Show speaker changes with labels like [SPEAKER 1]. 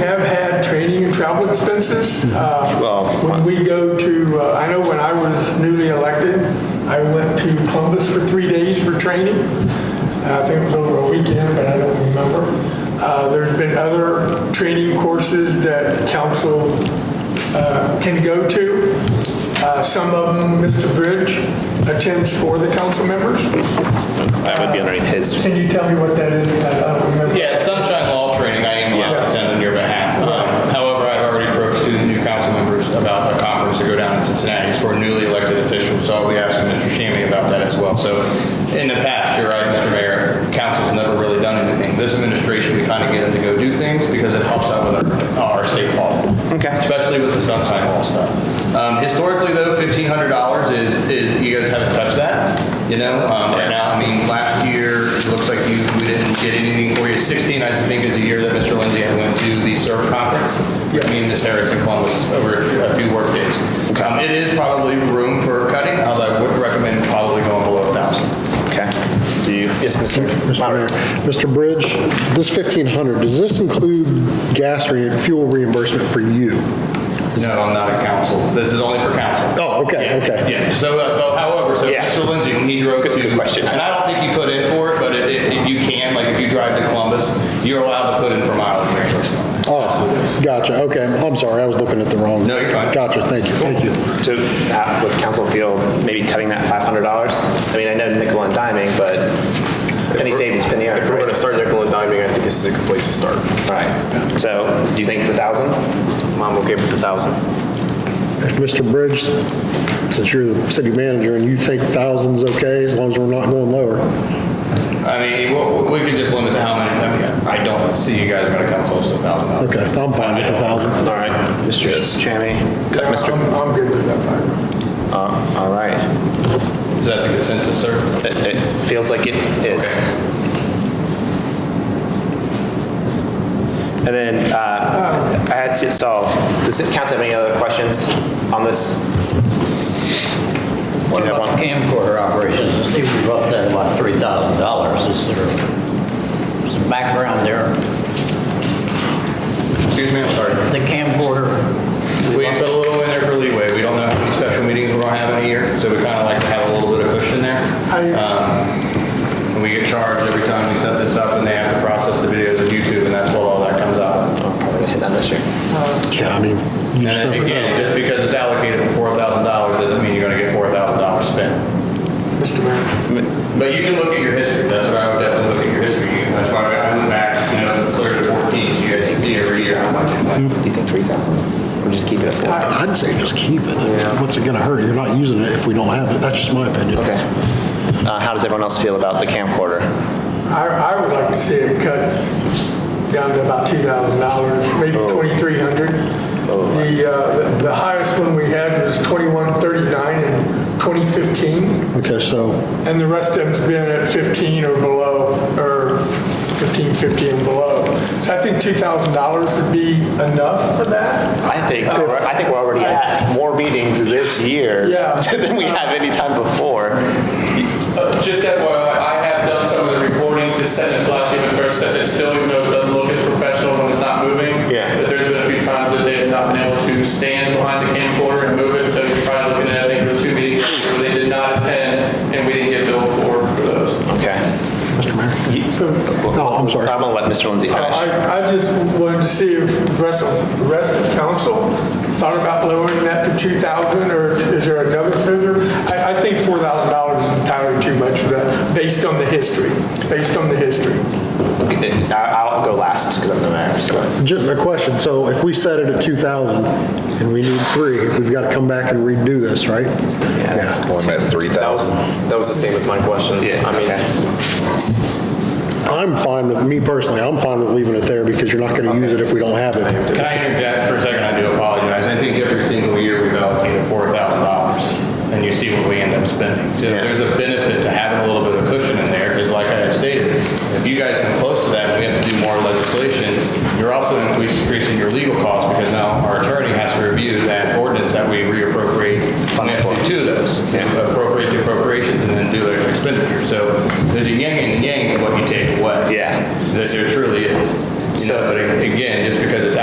[SPEAKER 1] have had training and travel expenses. Uh,
[SPEAKER 2] Well,
[SPEAKER 1] When we go to, uh, I know when I was newly elected, I went to Columbus for three days for training. I think it was over a weekend, but I don't remember. Uh, There's been other training courses that council uh, can go to. Uh, Some of them, Mr. Bridge attends for the council members.
[SPEAKER 2] That would be underneath his.
[SPEAKER 1] Can you tell me what that is? I don't remember.
[SPEAKER 3] Yeah, sunshine law training, I am allowed
[SPEAKER 1] Yeah.
[SPEAKER 3] to attend on your behalf. Um, However, I've already approached two new council members about a conference to go down in Cincinnati. It's for newly elected officials, so I'll be asking Mr. Shammy about that as well. So in the past, you're right, Mr. Mayor, council's never really done anything. This administration, we kind of get them to go do things because it helps out with our, our state law.
[SPEAKER 2] Okay.
[SPEAKER 3] Especially with the sunshine law stuff. Um, Historically, though, $1,500 is, is, you guys haven't touched that, you know? Um, Right now, I mean, last year, it looks like you, we didn't get anything for you. 16, I think, is the year that Mr. Lindsay had went to the SERB conference. I mean, Ms. Harris in Columbus over a few work days. Um, It is probably room for cutting, although I would recommend probably going below 1,000.
[SPEAKER 2] Okay. Do you? Yes, Mr.
[SPEAKER 4] Mr. Mayor. Mr. Bridge, this 1,500, does this include gas or fuel reimbursement for you?
[SPEAKER 3] No, I'm not a council. This is only for council.
[SPEAKER 4] Oh, okay, okay.
[SPEAKER 3] Yeah, so, uh, so however, so
[SPEAKER 2] Yeah.
[SPEAKER 3] Mr. Lindsay, when he drove to.
[SPEAKER 2] good question.
[SPEAKER 3] And I don't think you put in for it, but if, if you can, like if you drive to Columbus, you're allowed to put in for mileage reimbursement.
[SPEAKER 4] Oh, gotcha, okay. I'm sorry, I was looking at the wrong.
[SPEAKER 3] No, you're fine.
[SPEAKER 4] Gotcha, thank you, thank you.
[SPEAKER 2] So uh, would council feel maybe cutting that $500? I mean, I know nickel and diming, but penny saved is penny earned.
[SPEAKER 5] If we're going to
[SPEAKER 2] right?
[SPEAKER 5] start nickel and diming, I think this is a good place to start.
[SPEAKER 2] Right. So do you think the 1,000?
[SPEAKER 5] I'm okay with the thousand.
[SPEAKER 4] Mr. Bridge, since you're the city manager and you think thousands okay, as long as we're not going lower.
[SPEAKER 3] I mean, we, we could just limit to how many, I mean, I don't see you guys are gonna come close to a thousand dollars.
[SPEAKER 4] Okay, I'm fine with a thousand.
[SPEAKER 2] All right. Mr. Chammy?
[SPEAKER 1] Yeah,
[SPEAKER 2] Cut, Mr.
[SPEAKER 1] I'm I'm good with that. Fine.
[SPEAKER 2] Uh, All right.
[SPEAKER 3] Is that the consensus, sir?
[SPEAKER 2] It it feels like it is. And then uh, I had to, so does the council have any other questions on this?
[SPEAKER 6] What
[SPEAKER 2] You have
[SPEAKER 6] about
[SPEAKER 2] one?
[SPEAKER 6] the camcorder operations? I see we brought that about three thousand dollars. Is there some background there?
[SPEAKER 3] Excuse me, I'm sorry.
[SPEAKER 6] The camcorder,
[SPEAKER 3] We put a little in there for leeway. We don't know how many special meetings we're gonna have in a year, so we kinda like to have a little bit of cushion there.
[SPEAKER 1] I-
[SPEAKER 3] Um, and We get charged every time we set this up, and they have to process the videos of YouTube, and that's what all that comes out. of.
[SPEAKER 2] Oh, probably hit that this year.
[SPEAKER 4] Yeah, I mean, you just
[SPEAKER 3] And
[SPEAKER 4] never know.
[SPEAKER 3] again, just because it's allocated for four thousand dollars doesn't mean you're gonna get four thousand dollars spent.
[SPEAKER 1] Mr. Mayor.
[SPEAKER 3] But you can look at your history, that's what I would definitely look at your history. You- That's why I went back, you know, clear to fourteen, so you guys can see every year how much it went.
[SPEAKER 2] Do you think 3,000? Or just keep it as
[SPEAKER 1] Uh,
[SPEAKER 2] well?
[SPEAKER 4] I'd say just keep it. What's it gonna hurt? You're not using it if we don't have it. That's just my opinion.
[SPEAKER 2] Okay. Uh, How does everyone else feel about the camcorder?
[SPEAKER 1] I, I would like to see it cut down to about two thousand dollars, maybe twenty-three hundred. The, uh, the- the highest one we had was twenty-one thirty-nine in twenty fifteen,
[SPEAKER 4] Okay, so
[SPEAKER 1] and the rest of them's been at fifteen or below, or fifteen fifty and below. So I think two thousand dollars would be enough for that.
[SPEAKER 2] I think, I think we're already at more meetings this year
[SPEAKER 1] Yeah.
[SPEAKER 2] than we have any time before.
[SPEAKER 7] Uh, Just FYI, I have done some of the recordings, just sent it flashy the first set, it's still, even though it doesn't look as professional when it's not moving.
[SPEAKER 2] Yeah.
[SPEAKER 7] But there's been a few times that they have not been able to stand behind the camcorder and move it, so you're probably looking at, I think there's two meetings where they did not attend, and we didn't get billed for, for those.
[SPEAKER 2] Okay.
[SPEAKER 4] Mr. Mayor?
[SPEAKER 2] No,
[SPEAKER 4] I'm sorry.
[SPEAKER 2] I'm going to let Mr. Lindsay finish.
[SPEAKER 1] Oh, I, I just wanted to see if the rest of, the rest of council thought about lowering that to two thousand, or is there another figure? I, I think four thousand dollars is entirely too much for that, based on the history, based on the history.
[SPEAKER 2] I- Uh, I'll go last because I'm the mayor. so.
[SPEAKER 4] Just a question, so if we set it at 2,000 and we need three, we've got to come back and redo this, right?
[SPEAKER 2] that's
[SPEAKER 4] Yeah.
[SPEAKER 5] That was, that was the same as my question.
[SPEAKER 2] Yeah,
[SPEAKER 5] I mean,
[SPEAKER 4] I'm fine with, me personally, I'm fine with leaving it there because you're not going to use it if we don't have it.
[SPEAKER 3] Can I interject for a second? I do apologize. I think every single year we've allocated four thousand dollars, and you see what we end up spending. So
[SPEAKER 2] Yeah.
[SPEAKER 3] There's a benefit to having a little bit of cushion in there, because like I had stated, if you guys come close to that, and we have to do more legislation, you're also increasing your legal costs, because now our attorney has to review that ordinance that we reappropriate. We have to do two of those, appropriate the appropriations and then do their expenditure. So there's a yin and yang to what you take away.
[SPEAKER 2] Yeah.
[SPEAKER 3] That there truly is. You know, but again, just because it's